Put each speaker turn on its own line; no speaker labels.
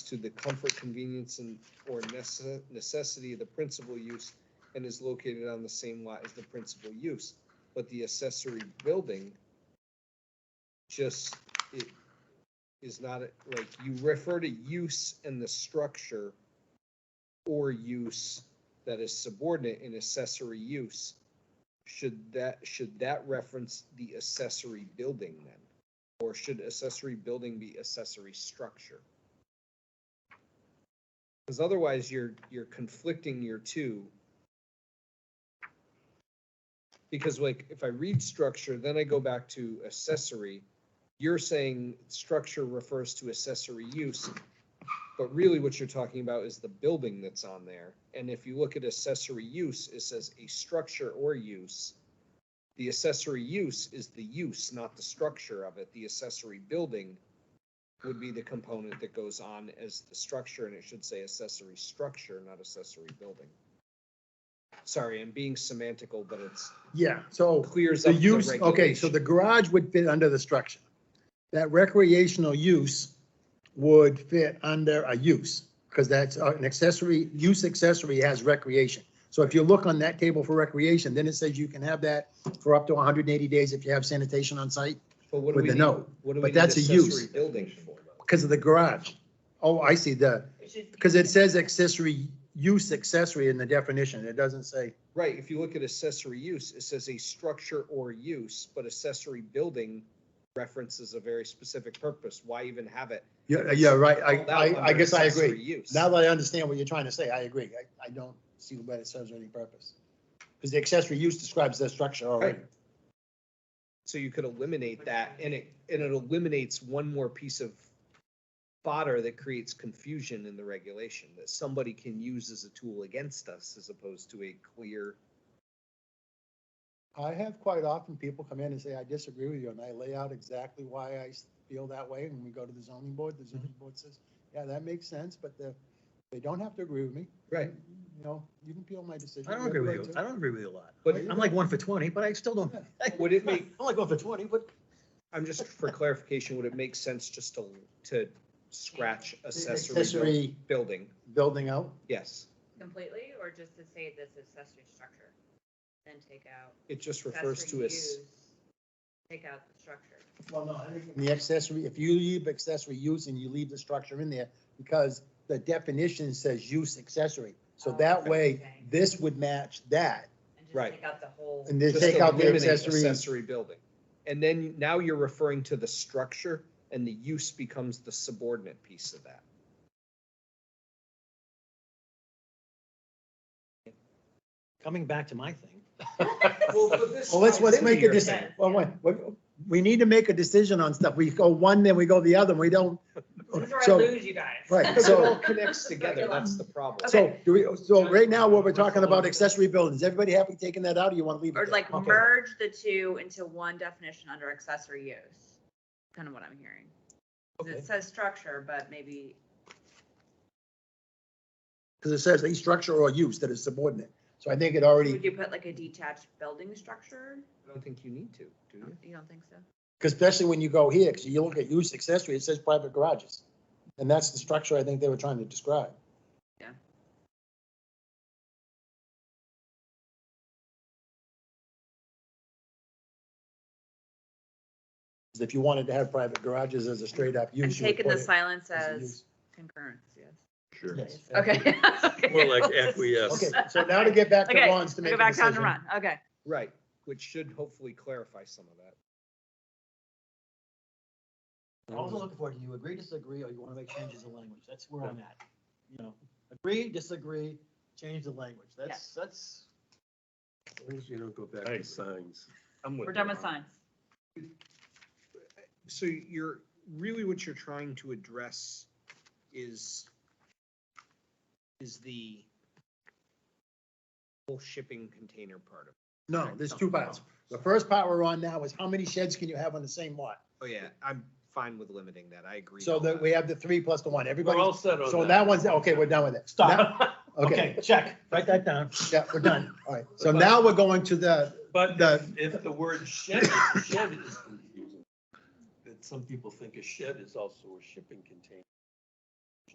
to the comfort, convenience, and or necess- necessity of the principal use and is located on the same lot as the principal use. But the accessory building just, it is not, a- like, you refer to use and the structure or use that is subordinate in accessory use. Should that, should that reference the accessory building then? Or should accessory building be accessory structure? Because otherwise, you're, you're conflicting your two. Because like, if I read structure, then I go back to accessory. You're saying structure refers to accessory use, but really what you're talking about is the building that's on there. And if you look at accessory use, it says a structure or use. The accessory use is the use, not the structure of it. The accessory building would be the component that goes on as the structure, and it should say accessory structure, not accessory building. Sorry, I'm being semantical, but it's
Yeah, so
clears
the
up the
use, okay, so
regulation.
the garage would fit under the structure. That recreational use would fit under a use, because that's uh, an accessory, use accessory has recreation. So if you look on that table for recreation, then it says you can have that for up to hundred and eighty days if you have sanitation on site,
But what do
with
we
the
need-
no,
What do
but
we need
that's a
accessory
use.
building for?
because of the garage. Oh, I see, the, because it says accessory, use accessory in the definition, it doesn't say,
Right, if you look at accessory use, it says a structure or use, but accessory building references a very specific purpose. Why even have it?
yeah, yeah, right,
called out
I, I, I
under
guess I
accessory
agree.
use?
Now that I understand what you're trying to say, I agree. I, I don't see why it serves any purpose. Because the accessory use describes the structure already.
Right. So you could eliminate that and it, and it eliminates one more piece of fodder that creates confusion in the regulation that somebody can use as a tool against us as opposed to a clear.
I have quite often people come in and say, I disagree with you, and I lay out exactly why I s- feel that way, and we go to the zoning board, the zoning board says, yeah, that makes sense, but the, they don't have to agree with me.
Right.
You know, you can appeal my decision.
I don't agree with you. I don't agree with you a lot.
But-
I'm like one for twenty, but I still don't.
Would it make-
I'm like one for twenty, but
I'm just, for clarification, would it make sense just to, to scratch accessory buil-
Accessory
building?
building out,
Yes,
Completely, or just to say this is accessory structure, then take out.
it just refers
accessory
to as,
use, Take out the structure.
Well, no, I think. The accessory, if you leave accessory use and you leave the structure in there, because the definition says use accessory. So
Oh,
that
okay.
way, this would match that,
And just
Right.
Take out the whole.
and then
Just
take out the
eliminate
accessory.
Accessory building. And then now you're referring to the structure and the use becomes the subordinate piece of that.
coming back to my thing.
Well, let's, let's make a
Your
decision.
thing.
Well, wait, wait, we need to make a decision on stuff. We go one, then we go the other, and we don't.
This is where I
So,
lose you guys.
right,
Because it all
so-
connects together, that's the problem.
so,
Okay.
do we, so right now, what we're talking about accessory buildings, everybody happy taking that out, or you want to leave it?
Or
there?
like
Okay.
merge the two into one definition under accessory use, kind of what I'm hearing. 'Cause
Okay.
It says structure, but maybe,
Because it says a structure or use that is subordinate. So I think it already.
would you put like a detached building structure?
I don't think you need to, do you?
You don't think so?
Because especially when you go here, because you look at use accessory, it says private garages. And that's the structure I think they were trying to describe.
Yeah.
If you wanted to have private garages as a straight up
I'm
use. you would
taking the
put it
silence
as a
as
use.
concurrence, yes.
Sure.
Yes.
Okay. okay.
More like acquiesce.
Okay, so now to get back to
Okay,
Ron's to
Go
make a
back down to
decision.
run, okay.
Right, which should hopefully clarify some of that.
I'm also looking for, do you agree, disagree, or you want to make changes in language? That's where I'm at. You know, agree, disagree, change the language. That's, that's.
As long as you don't go back to signs.
I'm
We're done with signs.
So you're, really what you're trying to address is, is the whole shipping container part of it.
No, there's two parts. The first part we're on now is how many sheds can you have on the same lot?
Oh, yeah, I'm fine with limiting that, I agree.
So
on
that we have the three plus the one, everybody.
set
So that one's, okay, we're done with it. Now- Okay,
check. Write that down.
yeah, we're done. All right. So now we're going to the,
But
The-
if the word shed, shed is confusing, that some people think a shed is also a shipping container.